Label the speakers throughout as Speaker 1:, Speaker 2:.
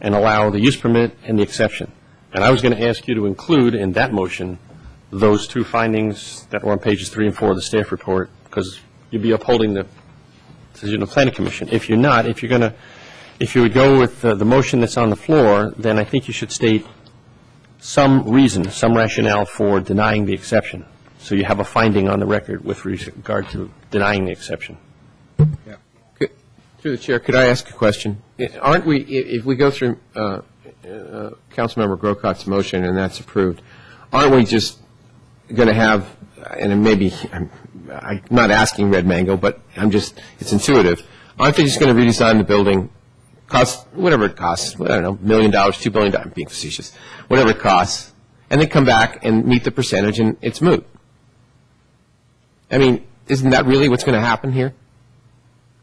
Speaker 1: and allow the use permit and the exception. And I was going to ask you to include in that motion those two findings that were on pages three and four of the staff report, because you'd be upholding the decision of the planning commission. If you're not, if you're going to, if you would go with uh, the motion that's on the floor, then I think you should state some reason, some rationale for denying the exception. So you have a finding on the record with regard to denying the exception.
Speaker 2: Could- Through the chair, could I ask a question? I- Aren't we, i- if we go through uh, uh, Councilmember Grocott's motion and that's approved, aren't we just going to have, and maybe, I'm I'm not asking Red Mango, but I'm just, it's intuitive, aren't they just going to redesign the building, cost, whatever it costs, I don't know, million dollars, $2 billion, I'm being facetious, whatever it costs, and then come back and meet the percentage and it's moot? I mean, isn't that really what's going to happen here?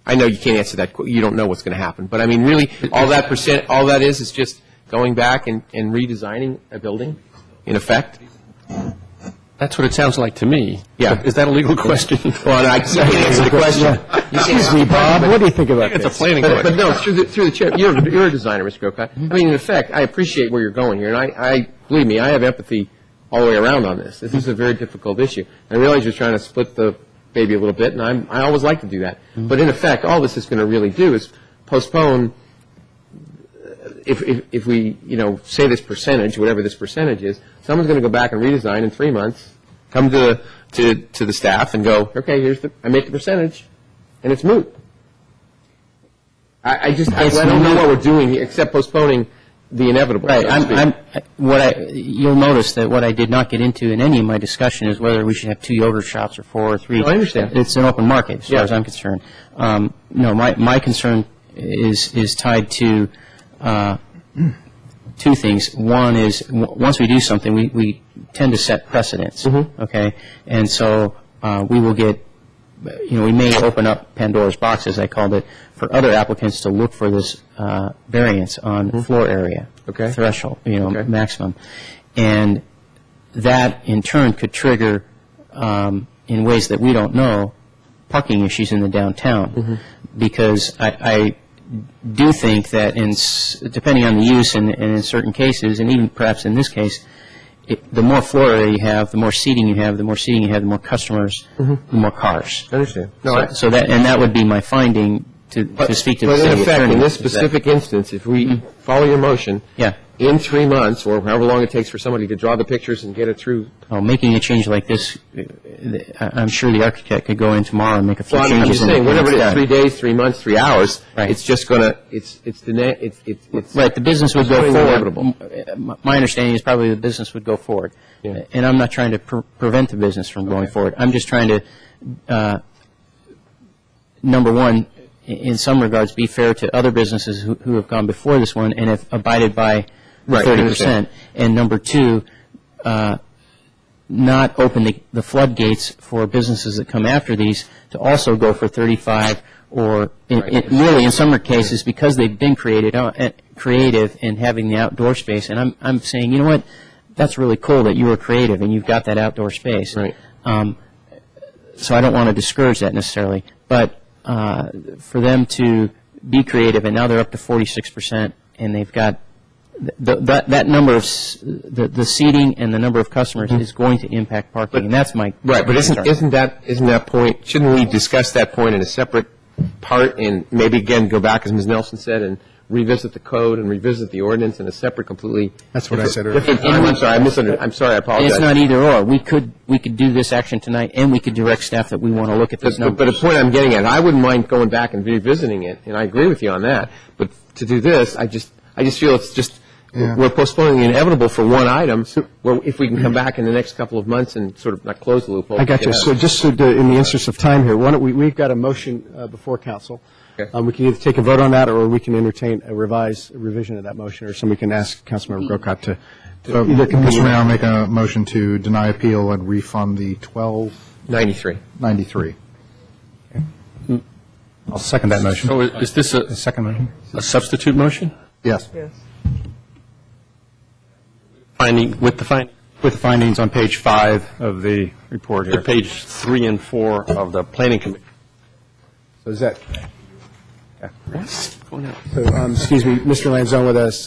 Speaker 2: I know you can't answer that, qu- you don't know what's going to happen, but I mean, really, all that percent, all that is, is just going back and and redesigning a building, in effect?
Speaker 1: That's what it sounds like to me.
Speaker 2: Yeah.
Speaker 1: Is that a legal question?
Speaker 2: Well, and I I can't answer the question.
Speaker 3: Excuse me, Bob, what do you think about
Speaker 1: It's a
Speaker 3: this?
Speaker 1: planning
Speaker 2: But but
Speaker 1: question.
Speaker 2: no, through the, through the chair, you're, you're a designer, Mr. Grocott.
Speaker 1: Mm-hmm.
Speaker 2: I mean, in effect, I appreciate where you're going here, and I, I, believe me, I have empathy all the way around on this. This is a very difficult issue. I realize you're trying to split the baby a little bit, and I'm, I always like to do that.
Speaker 1: Mm-hmm.
Speaker 2: But in effect, all this is going to really do is postpone uh, if, if, if we, you know, say this percentage, whatever this percentage is, someone's going to go back and redesign in three months, come to, the to, to the staff and go, okay, here's the, I make the percentage, and it's moot. I, I just, I I don't know what we're doing, here except postponing the inevitable. so
Speaker 4: Right,
Speaker 2: to
Speaker 4: I'm,
Speaker 2: speak.
Speaker 4: I'm, what I, you'll notice that what I did not get into in any of my discussion is whether we should have two yogurt shops or four or three.
Speaker 2: No, I understand.
Speaker 4: It's an open market, as far
Speaker 2: Yeah.
Speaker 4: as I'm concerned. Um, no, my, my concern is, is tied to, uh, two things. One is, w- once we do something, we, we tend to set precedents,
Speaker 2: Mm-hmm.
Speaker 4: okay? And so, uh, we will get you know, we may open up Pandora's box, as I called it, for other applicants to look for this uh, variance on floor area.
Speaker 2: Mm-hmm. Okay.
Speaker 4: Threshold, you know,
Speaker 2: Okay.
Speaker 4: maximum. And that, in turn, could trigger, um, in ways that we don't know, parking issues in the
Speaker 2: Mm-hmm.
Speaker 4: downtown. Because I, I do think that in, s- depending on the use and, and in certain cases, and even perhaps in this case, it, the more floor area you have, the more seating you have, the more seating you have, the more customers,
Speaker 2: Mm-hmm.
Speaker 4: the more cars.
Speaker 2: I understand. No, I-
Speaker 4: So that, and that would be my finding to, to speak to the
Speaker 2: But in
Speaker 4: city
Speaker 2: effect,
Speaker 4: attorney.
Speaker 2: in this
Speaker 4: is that- Mm-hmm.
Speaker 2: specific instance, if we follow your motion.
Speaker 4: Yeah.
Speaker 2: In three months, or however long it takes for somebody to draw the pictures and get it through.
Speaker 4: Oh, making a change like this, uh, I- I'm sure the architect could go in tomorrow and make a few
Speaker 2: Well,
Speaker 4: changes.
Speaker 2: I'm I'm just
Speaker 4: in
Speaker 2: saying, whatever it is,
Speaker 4: done.
Speaker 2: three days, three months, three hours,
Speaker 4: Right.
Speaker 2: it's just going to, it's, it's, the na- it's, it's. it's-
Speaker 4: Right, the business would
Speaker 2: It's
Speaker 4: go forward.
Speaker 2: inevitable.
Speaker 4: M- uh, My understanding is probably the business would go forward. And I'm not trying to pre- prevent the business from going forward. I'm just trying to, uh, number one, i- in some regards, be fair to other businesses who who have gone before this one and have abided by the
Speaker 2: Right, I
Speaker 4: 30%.
Speaker 2: understand.
Speaker 4: And number two, uh, not open the- the floodgates for businesses that come after these to also go for 35 or, in- in- really, in some cases, because they've been created, uh, eh, creative in having the outdoor space. And I'm, I'm saying, you know what, that's really cool that you were creative and you've got that outdoor space.
Speaker 2: Right.
Speaker 4: Um, So I don't want to discourage that necessarily. But uh, for them to be creative, and now they're up to 46%, and they've got the- that, that number of, s- the, the seating and the number of customers is going to impact parking, and that's my.
Speaker 2: Right, Mm-hmm. but isn't,
Speaker 4: concern.
Speaker 2: isn't that, isn't that point, shouldn't we discuss that point in a separate part and maybe again, go back, as Ms. Nelson said, and revisit the code and revisit the ordinance in a separate completely?
Speaker 3: That's what I said earlier.
Speaker 2: Different time, I'm sorry, I misunderstood, I'm sorry, I
Speaker 4: And It's
Speaker 2: apologize.
Speaker 4: not either or. We could, we could do this action tonight, and we could direct staff that we want to look at this
Speaker 2: But but the
Speaker 4: number.
Speaker 2: point I'm getting at, I wouldn't mind going back and revisiting it, and I agree with you on that, but to do this, I just, I just feel it's just,
Speaker 3: Yeah.
Speaker 2: we're postponing the inevitable for one item, where if we can come back in the next couple of months and sort of not close the loophole.
Speaker 3: I got you.
Speaker 2: get out.
Speaker 3: So just so, to- in the interest of time here, why don't we, we've got a motion uh, before council.
Speaker 2: Okay.
Speaker 3: Um, We can either take a vote on that, or we can entertain a revised revision of that motion, or somebody can ask Councilmember Grocott to to either
Speaker 5: Uh, Mr.
Speaker 3: continue.
Speaker 5: Mayor, I'll make a motion to deny appeal and refund the 1293.
Speaker 2: 93.
Speaker 5: I'll second that motion.
Speaker 1: So is this a
Speaker 5: Second motion?
Speaker 1: a substitute motion?
Speaker 5: Yes.
Speaker 1: Finding, with the finding,
Speaker 6: with findings on page five of the report
Speaker 1: the
Speaker 6: here.
Speaker 1: page three and four of the planning committee.
Speaker 3: So is that, so, um, excuse me, Mr. Lanzone with us.